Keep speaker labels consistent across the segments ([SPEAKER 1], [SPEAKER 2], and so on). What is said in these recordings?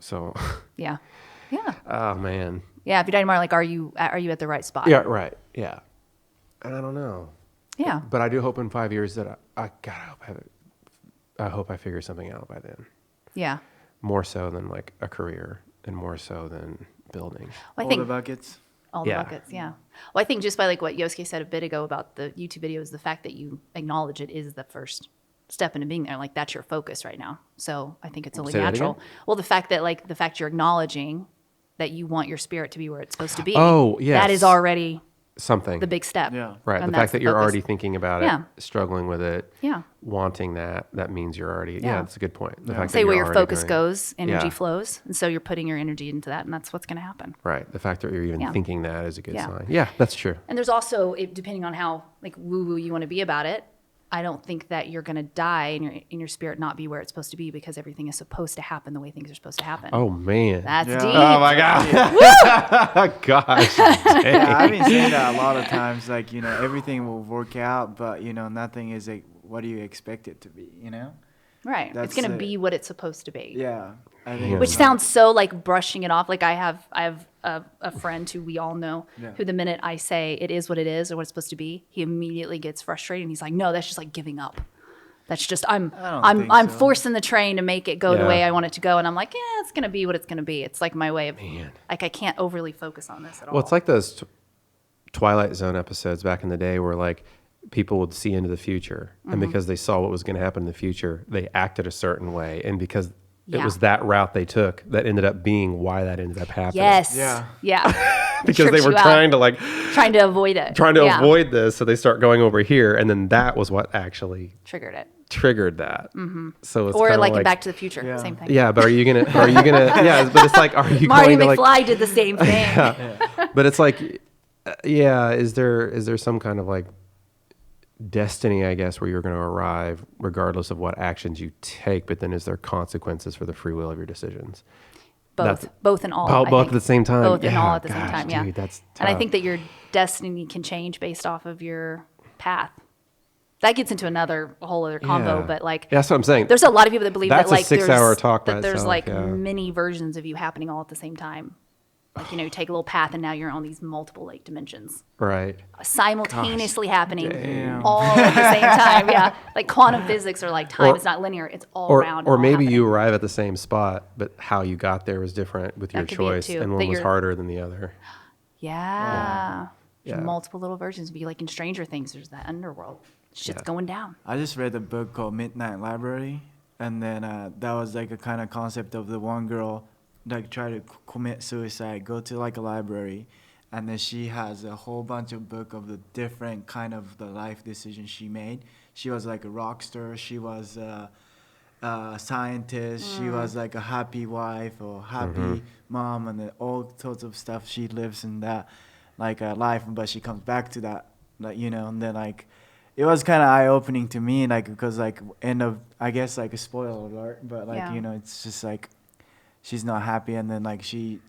[SPEAKER 1] So,
[SPEAKER 2] Yeah. Yeah.
[SPEAKER 1] oh man,
[SPEAKER 2] Yeah. If you die tomorrow, like, are you uh, are you at the right spot?
[SPEAKER 1] yeah, right, yeah. And I don't know,
[SPEAKER 2] Yeah.
[SPEAKER 1] but I do hope in five years that I, I God, I hope I, have it- I hope I figure something out by then.
[SPEAKER 2] Yeah.
[SPEAKER 1] More so than like a career, and more so than building.
[SPEAKER 2] Well, I
[SPEAKER 3] All
[SPEAKER 2] think
[SPEAKER 3] the buckets.
[SPEAKER 2] all the
[SPEAKER 1] Yeah.
[SPEAKER 2] buckets. Yeah. Well, I think just by like what Yosuke said a bit ago about the YouTube videos, the fact that you acknowledge it is the first step into being there. Like that's your focus right now. So I think it's only
[SPEAKER 1] Say that
[SPEAKER 2] natural.
[SPEAKER 1] again?
[SPEAKER 2] Well, the fact that like the fact you're acknowledging that you want your spirit to be where it's supposed to be.
[SPEAKER 1] Oh,
[SPEAKER 2] That
[SPEAKER 1] yes.
[SPEAKER 2] is already
[SPEAKER 1] Something.
[SPEAKER 2] the big step.
[SPEAKER 3] Yeah.
[SPEAKER 1] Right.
[SPEAKER 2] And
[SPEAKER 1] the fact
[SPEAKER 2] that's
[SPEAKER 1] that you're
[SPEAKER 2] focus.
[SPEAKER 1] already thinking about
[SPEAKER 2] Yeah.
[SPEAKER 1] it, struggling with it,
[SPEAKER 2] Yeah.
[SPEAKER 1] wanting that, that means you're already, yeah,
[SPEAKER 2] Yeah.
[SPEAKER 1] that's a good point. The fact
[SPEAKER 2] Say
[SPEAKER 1] that
[SPEAKER 2] where
[SPEAKER 1] you're
[SPEAKER 2] your
[SPEAKER 1] already
[SPEAKER 2] focus
[SPEAKER 1] doing-
[SPEAKER 2] goes, energy
[SPEAKER 1] Yeah.
[SPEAKER 2] flows. And so you're putting your energy into that, and that's what's going to happen.
[SPEAKER 1] Right. The fact that you're even
[SPEAKER 2] Yeah.
[SPEAKER 1] thinking that is a good
[SPEAKER 2] Yeah.
[SPEAKER 1] sign. Yeah, that's true.
[SPEAKER 2] And there's also, it, depending on how like woo woo you want to be about it, I don't think that you're going to die and your in your spirit not be where it's supposed to be because everything is supposed to happen the way things are supposed to happen.
[SPEAKER 1] Oh man.
[SPEAKER 2] That's
[SPEAKER 3] Yeah.
[SPEAKER 2] deep.
[SPEAKER 1] oh my god. Gosh. dang.
[SPEAKER 3] Yeah, I've been saying that a lot of times. Like you know, everything will work out, but you know, nothing is like what do you expect it to be? You know?
[SPEAKER 2] right. It's
[SPEAKER 3] That's
[SPEAKER 2] going to
[SPEAKER 3] it.
[SPEAKER 2] be what it's supposed to be.
[SPEAKER 3] Yeah. I think
[SPEAKER 1] Yeah.
[SPEAKER 2] Which
[SPEAKER 3] it's like-
[SPEAKER 2] sounds so like brushing it off. Like I have, I have a, a friend who we all know,
[SPEAKER 3] Yeah.
[SPEAKER 2] who the minute I say it is what it is or what it's supposed to be, he immediately gets frustrated and he's like, "No, that's just like giving up. That's just I'm,
[SPEAKER 3] I don't
[SPEAKER 2] I'm,
[SPEAKER 3] think
[SPEAKER 2] I'm
[SPEAKER 3] so."
[SPEAKER 2] forcing the train to make it go the way
[SPEAKER 1] Yeah.
[SPEAKER 2] I want it to go." And I'm like, "Yeah, it's gonna be what it's gonna be. It's like my way of,
[SPEAKER 1] Man.
[SPEAKER 2] like I can't overly focus on this at all."
[SPEAKER 1] Well, it's like those t- Twilight Zone episodes back in the day where like people would see into the future,
[SPEAKER 2] Mm-hmm.
[SPEAKER 1] and because they saw what was going to happen in the future, they acted a certain way, and because
[SPEAKER 2] Yeah.
[SPEAKER 1] it was that route they took that ended up being why that ended up happening.
[SPEAKER 2] yes,
[SPEAKER 3] Yeah.
[SPEAKER 2] yeah,
[SPEAKER 1] because they
[SPEAKER 2] Trips
[SPEAKER 1] were
[SPEAKER 2] you out,
[SPEAKER 1] trying to like
[SPEAKER 2] trying to avoid it,
[SPEAKER 1] trying to
[SPEAKER 2] Yeah.
[SPEAKER 1] avoid this, so they start going over here, and then that was what actually
[SPEAKER 2] triggered it,
[SPEAKER 1] triggered that. Mm-hmm. So it's
[SPEAKER 2] or
[SPEAKER 1] kinda
[SPEAKER 2] like, in Back to the Future,
[SPEAKER 3] Yeah.
[SPEAKER 2] same thing.
[SPEAKER 1] yeah, but are you gonna are you gonna yeah? But it's like are you
[SPEAKER 2] Marty
[SPEAKER 1] going to
[SPEAKER 2] McFly
[SPEAKER 1] like?
[SPEAKER 2] did the same thing.
[SPEAKER 1] But it's like uh, yeah, is there is there some kind of like destiny, I guess, where you're going to arrive regardless of what actions you take? But then is there consequences for the free will of your decisions?
[SPEAKER 2] both,
[SPEAKER 1] That's-
[SPEAKER 2] both and all.
[SPEAKER 1] Both-
[SPEAKER 2] I
[SPEAKER 1] both at
[SPEAKER 2] think.
[SPEAKER 1] the same time.
[SPEAKER 2] Both and
[SPEAKER 1] Yeah,
[SPEAKER 2] all at the same
[SPEAKER 1] gosh,
[SPEAKER 2] time. Yeah,
[SPEAKER 1] dude, that's
[SPEAKER 2] and I
[SPEAKER 1] tough.
[SPEAKER 2] think that your destiny can change based off of your path. That gets into another a whole other combo,
[SPEAKER 1] Yeah.
[SPEAKER 2] but like,
[SPEAKER 1] Yeah, that's what I'm saying.
[SPEAKER 2] there's a lot of people that believe
[SPEAKER 1] That's a
[SPEAKER 2] that like
[SPEAKER 1] six-hour
[SPEAKER 2] there's,
[SPEAKER 1] talk by
[SPEAKER 2] that there's
[SPEAKER 1] itself,
[SPEAKER 2] like
[SPEAKER 1] yeah.
[SPEAKER 2] many versions of you happening all at the same time. Like you know, you take a little path and now you're on these multiple like dimensions uh,
[SPEAKER 1] right.
[SPEAKER 2] simultaneously happening
[SPEAKER 3] damn.
[SPEAKER 2] all at the same time. Yeah, like quantum physics or like time
[SPEAKER 1] Or-
[SPEAKER 2] is not linear; it's all
[SPEAKER 1] Or,
[SPEAKER 2] around.
[SPEAKER 1] or
[SPEAKER 2] all
[SPEAKER 1] maybe
[SPEAKER 2] happening.
[SPEAKER 1] you arrive at the same spot, but how you got there was different with your
[SPEAKER 2] could be it
[SPEAKER 1] choice,
[SPEAKER 2] too,
[SPEAKER 1] and
[SPEAKER 2] that
[SPEAKER 1] one was
[SPEAKER 2] you're-
[SPEAKER 1] harder than the other.
[SPEAKER 2] Yeah. There's
[SPEAKER 1] Yeah.
[SPEAKER 2] Multiple little versions. Be like in Stranger Things, there's that underworld. Shit's
[SPEAKER 1] Yeah.
[SPEAKER 2] going down.
[SPEAKER 3] I just read a book called Midnight Library, and then uh, that was like a kind of concept of the one girl like try to c- commit suicide, go to like a library, and then she has a whole bunch of book of the different kind of the life decisions she made. She was like a rock star. She was. Uh, uh, scientist. She was like a happy wife or happy mom, and then all sorts of stuff. She lives in that like uh, life, but she comes back to that, like you know. And then like it was kind of eye opening to me, like because like end of I guess like a spoiler alert, but like
[SPEAKER 2] Yeah.
[SPEAKER 3] you know, it's just like she's not happy, and then like she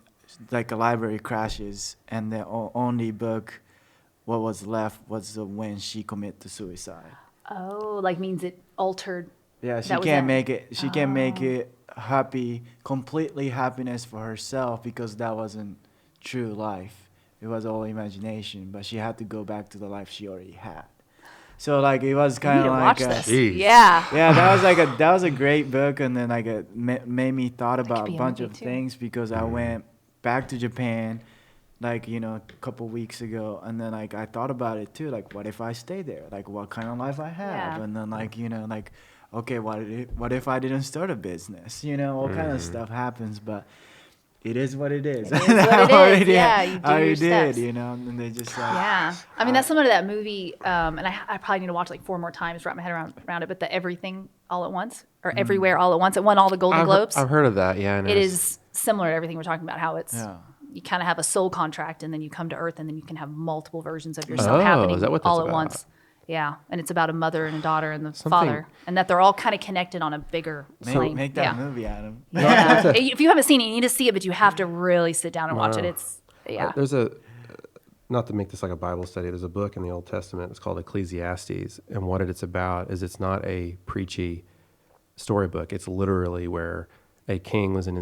[SPEAKER 3] like a library crashes, and the o- only book. What was left was the when she committed suicide.
[SPEAKER 2] Oh, like means it altered.
[SPEAKER 3] Yeah, she
[SPEAKER 2] That was
[SPEAKER 3] can't
[SPEAKER 2] it. Oh.
[SPEAKER 3] make it. She can't make it happy, completely happiness for herself because that wasn't true life. It was all imagination. But she had to go back to the life she already had. So like it
[SPEAKER 2] You
[SPEAKER 3] was
[SPEAKER 2] need
[SPEAKER 3] kind
[SPEAKER 2] to
[SPEAKER 3] of
[SPEAKER 2] watch
[SPEAKER 3] like a,
[SPEAKER 2] this.
[SPEAKER 1] uh, Jeez.
[SPEAKER 2] Yeah.
[SPEAKER 3] yeah, that was like a that was a great book, and then like it ma- made me thought
[SPEAKER 2] could
[SPEAKER 3] about
[SPEAKER 2] be
[SPEAKER 3] a
[SPEAKER 2] a
[SPEAKER 3] bunch
[SPEAKER 2] movie,
[SPEAKER 3] of
[SPEAKER 2] too.
[SPEAKER 3] things because I went back to Japan, like you know, a couple weeks ago, and then like I thought about it too, like what if I stay there, like what kind of life I have,
[SPEAKER 2] Yeah.
[SPEAKER 3] and then like you know, like okay, what if, what if I didn't start a business, you know, all kind of stuff happens, but. It is what it is.
[SPEAKER 2] It is what it
[SPEAKER 3] I
[SPEAKER 2] is,
[SPEAKER 3] already-
[SPEAKER 2] yeah, you do
[SPEAKER 3] I
[SPEAKER 2] your
[SPEAKER 3] already
[SPEAKER 2] steps.
[SPEAKER 3] did, you know, and they just like,
[SPEAKER 2] Yeah. I mean, that's similar to that movie, um, and I, I probably need to watch like four more times, wrap my head around, around it, but the Everything All at Once or Everywhere All at Once. It won all the Golden
[SPEAKER 1] Mm. I've, he-
[SPEAKER 2] Globes.
[SPEAKER 1] I've heard of that. Yeah, I know.
[SPEAKER 2] it is similar to everything we're talking about, how it's.
[SPEAKER 3] Yeah.
[SPEAKER 2] You kind of have a soul contract, and then you come to Earth, and then you can have multiple versions of yourself
[SPEAKER 1] Oh,
[SPEAKER 2] happening
[SPEAKER 1] is that what that's
[SPEAKER 2] all at
[SPEAKER 1] about?
[SPEAKER 2] once. Yeah, and it's about a mother and a daughter and the
[SPEAKER 1] Something-
[SPEAKER 2] father, and that they're all kind of connected on a bigger
[SPEAKER 3] make,
[SPEAKER 2] plane.
[SPEAKER 3] make
[SPEAKER 2] yeah.
[SPEAKER 3] that movie, Adam.
[SPEAKER 2] Yeah. if you haven't seen it, you need to see it, but you have to really sit down and watch it.
[SPEAKER 1] Wow.
[SPEAKER 2] It's yeah.
[SPEAKER 1] There's a uh, not to make this like a Bible study. There's a book in the Old Testament. It's called Ecclesiastes, and what it's about is it's not a preachy storybook. It's literally where a king was in his